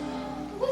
Oh,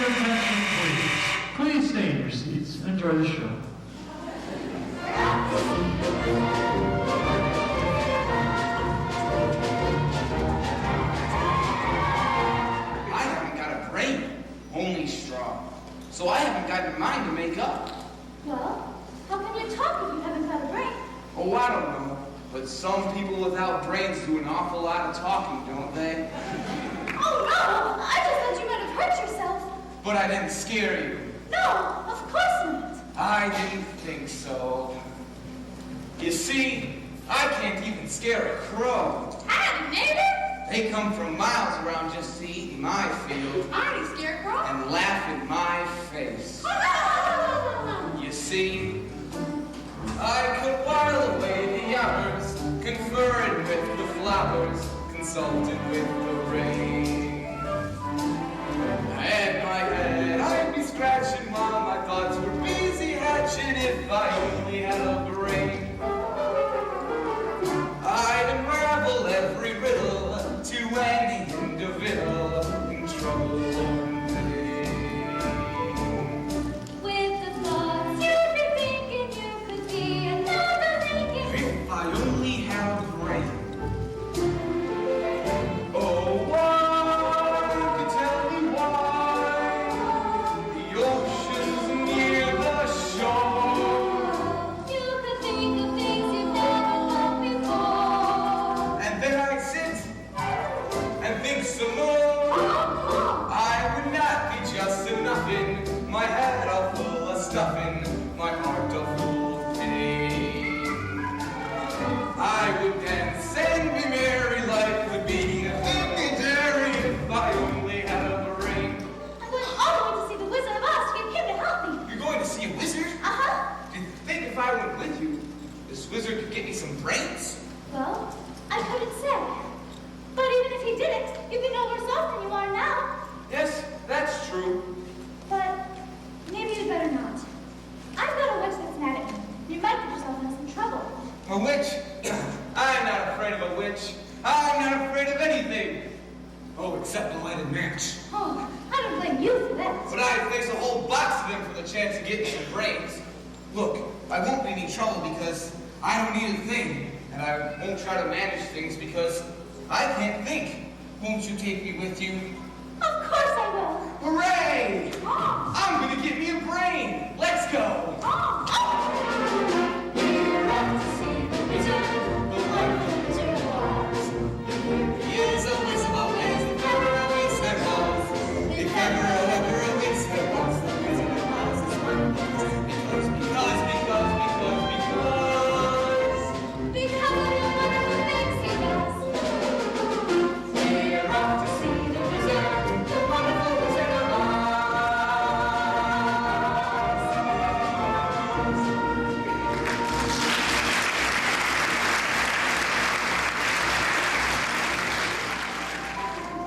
attention, please. Please stay in your seats and enjoy the show. I haven't got a brain, only straw. So I haven't got a mind to make up. Well, how can you talk if you haven't got a brain? Oh, I don't know. But some people without brains do an awful lot of talking, don't they? Oh no! I just thought you might have hurt yourself. But I didn't scare you. No, of course not. I didn't think so. You see, I can't even scare a crow. Howdy, neighbor. They come from miles around just to eat in my field Howdy, scarecrow. and laugh in my face. Hurrah! You see, I could while away the hours, conferring with the flowers, consulting with the rain. I had my head, I'd be scratching while my thoughts were busy hatching if I only had a brain. I'd unravel every riddle to any individual in trouble one day. With the thoughts you'd be thinking you could be another Lincoln. If I only had a brain. Oh, one could tell me why the ocean's near the shore. You could think of things you've never thought before. And then I'd sit and think some more. I would not be just a nothing. My head all full of stuffing, my heart all full of pain. I would dance and be merry. Life would be a thing to dairy if I only had a brain. I'm going all the way to see the Wizard of Oz to get him to help me. You're going to see a wizard? Uh huh. Do you think if I went with you, this wizard could get me some brains? Well, I couldn't say. But even if he didn't, you'd be no worse off than you are now. Yes, that's true. But maybe you'd better not. I've got a witch that's mad at me. You might get yourself in some trouble. A witch? I'm not afraid of a witch. I'm not afraid of anything. Oh, except a lighted match. Oh, I don't blame you for that. But I'd face a whole box of them for the chance to get me some brains. Look, I won't be any trouble because I don't need a thing, and I won't try to manage things because I can't think. Won't you take me with you? Of course I will. Hooray! Oh, I'm gonna get me a brain! Let's go! oh, oh. We're off to see the wizard, the wonderful wizard of Oz. Years of wisdom always, the never always there was. The never ever always there was. The wisdom of Oz is wonderful. Because, because, because, because, because. Because of the wonderful things he does. We're off to see the wizard, the wonderful wizard of Oz.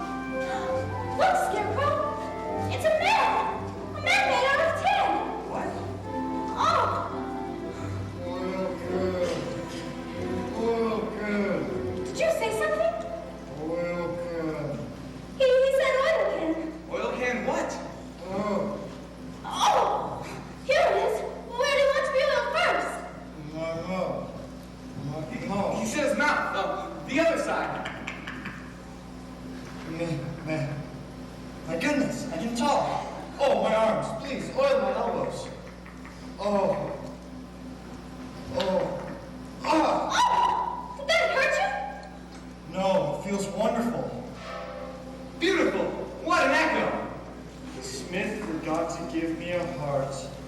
Look, Scarecrow. It's a man. A man made out of tin. What? Oh, Well, good. Well, good. did you say something? Well, good. He, he said oil can. Oil can what? Oh, Oh, here it is. Where do you want to be on first? my love. My He love. says not. Uh, the other side. Man, man. My goodness, I can talk. Oh, my arms, please. Oil my elbows. Oh. Oh. Oh, Ah! did that hurt you? No, it feels wonderful. Beautiful. What an echo. The smith forgot to give me a heart.